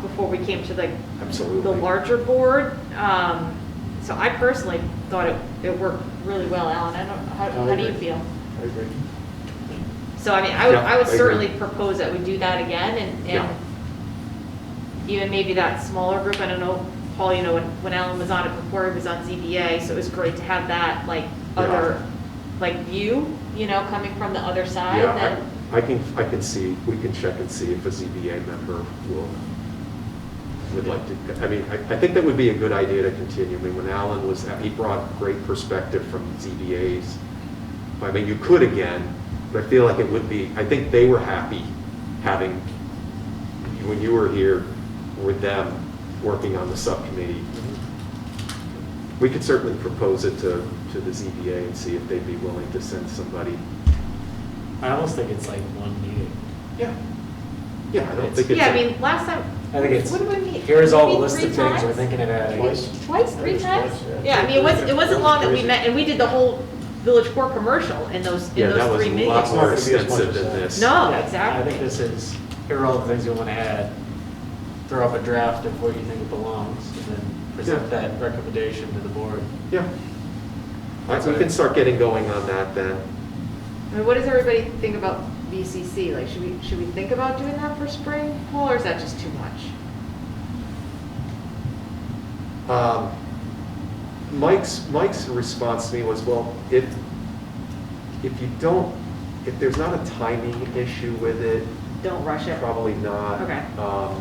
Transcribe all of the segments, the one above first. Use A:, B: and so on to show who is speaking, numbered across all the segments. A: before we came to like the
B: Absolutely.
A: larger board. Um, So I personally thought it, it worked really well, Alan. I don't, how,
B: I
A: how do you
B: agree.
A: feel?
B: I agree.
A: So I mean, I would,
B: Yeah,
A: I would
B: I agree.
A: certainly propose that we do that again and,
B: Yeah.
A: and even maybe that smaller group, I don't know, Paul, you know, when, when Alan was on it before, he was on ZBA, so it was great to have that like
B: Yeah.
A: other, like view, you know, coming from the other side
B: Yeah,
A: than,
B: I I can, I can see, we can check and see if a ZBA member will, would like to, I mean, I, I think that would be a good idea to continue. I mean, when Alan was, he brought great perspective from ZBAs. I mean, you could again, but I feel like it would be, I think they were happy having, when you were here with them, working on the subcommittee. We could certainly propose it to, to the ZBA and see if they'd be willing to send somebody
C: I almost think it's like one meeting.
B: Yeah. Yeah, I don't think it's.
A: yeah, I
B: a-
A: mean, last time,
C: I think it's,
A: what did we meet?
C: here's all the
A: Meet
C: list of
A: three
C: things we're
A: times?
C: thinking about. I guess.
A: Twice,
D: I
A: three
D: think
A: times?
D: twice, yeah.
A: Yeah, I mean, it wasn't, it wasn't long that we
D: Crazy.
A: met, and we did the whole Village Core commercial in those,
B: Yeah,
A: in
B: that
A: those
B: was
A: three
B: a
A: meetings.
B: lot more
D: It's not gonna be as much
B: extensive
D: as
B: than
D: that.
B: this.
A: No,
C: Yeah, I
A: Oh, exactly.
C: think this is, here are all the things you want to add, throw up a draft of where you think belongs, and then present
B: Yeah.
C: that recommendation to the board.
B: Yeah. All right, We can start getting going on that then.
A: I mean, what does everybody think about VCC? Like, should we, should we think about doing that for spring, Paul, or is that just too much?
B: Um, Mike's, Mike's response to me was, well, if, if you don't, if there's not a timing issue with it,
A: Don't rush it.
B: probably not.
A: Okay.
B: Um,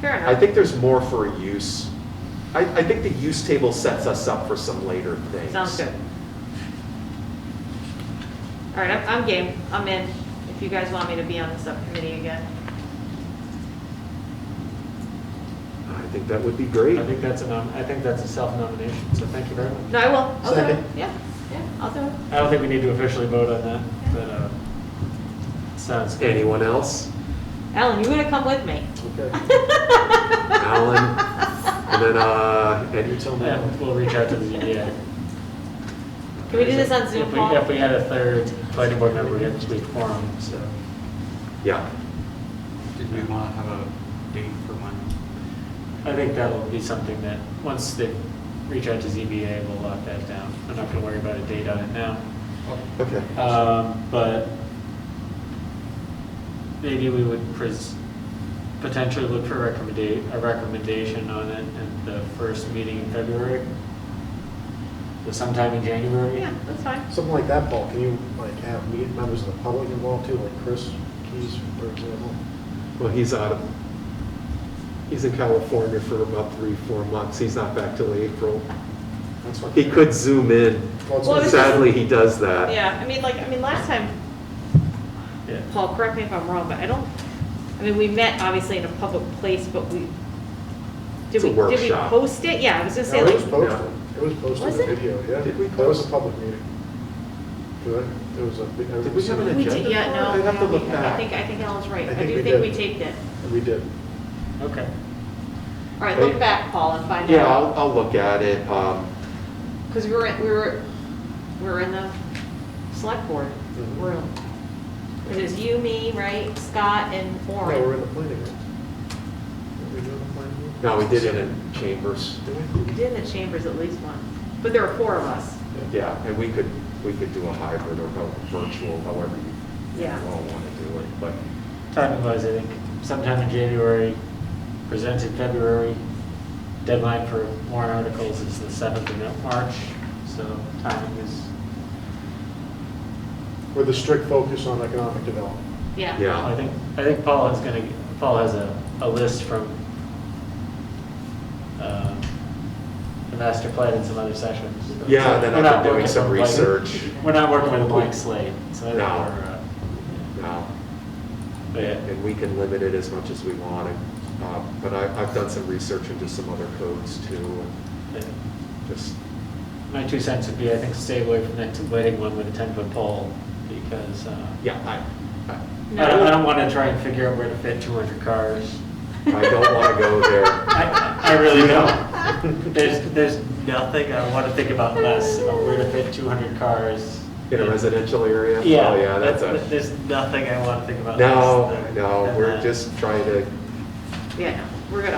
A: Fair enough.
B: I think there's more for a use. I, I think the use table sets us up for some later things.
A: Sounds good. All right, I'm, I'm game. I'm in, if you guys want me to be on the subcommittee again.
B: I think that would be great.
C: I think that's a nom, I think that's a self-nomination, so thank you very much.
A: No, I will. I'll do it.
D: Second.
A: Yeah, yeah, I'll do it.
C: I don't think we need to officially vote on that, but, uh, sounds good.
B: Anyone else?
A: Alan, you're gonna come with me.
D: Okay.
B: Alan? And then, uh,
D: You
B: and
D: tell me.
C: Yeah, we'll reach out to the ZBA.
A: Can we do this on Zoom,
C: If we-
A: Paul?
C: If we had a third planning board member, we'd have to be quorum, so.
B: yeah,
E: Did we want to have a date for when?
C: I think that'll be something that, once they reach out to ZBA, we'll lock that down. I'm not gonna worry about a date on it now.
B: okay.
C: Um, But maybe we would pres, potentially look for recommendate, a recommendation on it at the first meeting in February. So Sometime in January.
A: Yeah, that's fine.
D: Something like that, Paul, can you like have me- members of the public involved too, like Chris Keys, for example?
B: Well, he's out of, he's in California for about three, four months. He's not back till April.
D: That's what-
B: He could zoom in.
D: Well, it's
A: Well, it was-
D: gonna-
B: Sadly, he does that.
A: Yeah, I mean, like, I mean, last time,
C: Yeah.
A: Paul, correct me if I'm wrong, but I don't, I mean, we met obviously in a public place, but we, did
B: It's a
A: we, did we
B: workshop.
A: post it? Yeah, I was gonna
D: No,
A: say,
D: it was
A: like,
D: posted, it was posted
A: Was
D: in
A: it?
D: video, yeah.
B: Did we
D: That was
B: post?
D: a public meeting. Good, there was a. big-
B: Did we have an
A: we
B: agenda?
A: did, yeah, no.
B: I'd have to
A: no,
B: look
A: we- I
B: back.
A: think, I think Alan's right.
D: I
A: I
D: think
A: do
D: we
A: think
D: did.
A: we taped it.
D: We did.
C: Okay.
A: All right, look
B: Hey.
A: back, Paul, and find
B: Yeah, I'll,
A: out.
B: I'll look at it. Um,
A: Because we were, in- we were, we were in the select board
D: Mhm.
A: room. It was you, me, right, Scott, and
D: No, we're in
A: Warren.
D: the planning room. Were we doing the planning room?
B: No, we did it in chambers.
D: Did
A: We
D: we?
A: did in the chambers at least one, but there were four of us.
B: Yeah, and we could, we could do a hybrid or a virtual, however you
A: Yeah.
B: all want to do it. But
C: Timing wise, I think sometime in January, presented February. Deadline for warrant articles is the seventh of March, so timing is,
D: With a strict focus on economic development.
A: Yeah.
B: Yeah.
C: I think, I think Paul is gonna, Paul has a, a list from um, the master plan and some other sessions.
B: Yeah, then
C: We're not
B: I've been doing
C: working
B: some
C: with a blank-
B: research.
C: We're not working with a blank slate, so I think we're,
B: No.
C: uh,
B: now,
C: but yeah.
B: and we can limit it as much as we want. Uh, But I, I've done some research into some other codes too, and
C: yeah.
B: just
C: My two cents would be, I think, stay away from that lighting one with a 10-foot pole, because uh,
B: Yeah, I, I-
C: I don't, I don't want to try and figure out where to fit 200 cars.
B: I don't want to go there.
C: I, I really don't. There's, there's nothing I want to think about less about where to fit 200 cars.
B: In a residential area?
C: Yeah.
B: Oh, yeah, that's
C: that-
B: a,
C: There's nothing I want to think about less.
B: no,
C: than-
B: no,
C: than
B: we're
C: that.
B: just trying to,
A: Yeah, no, we're gonna,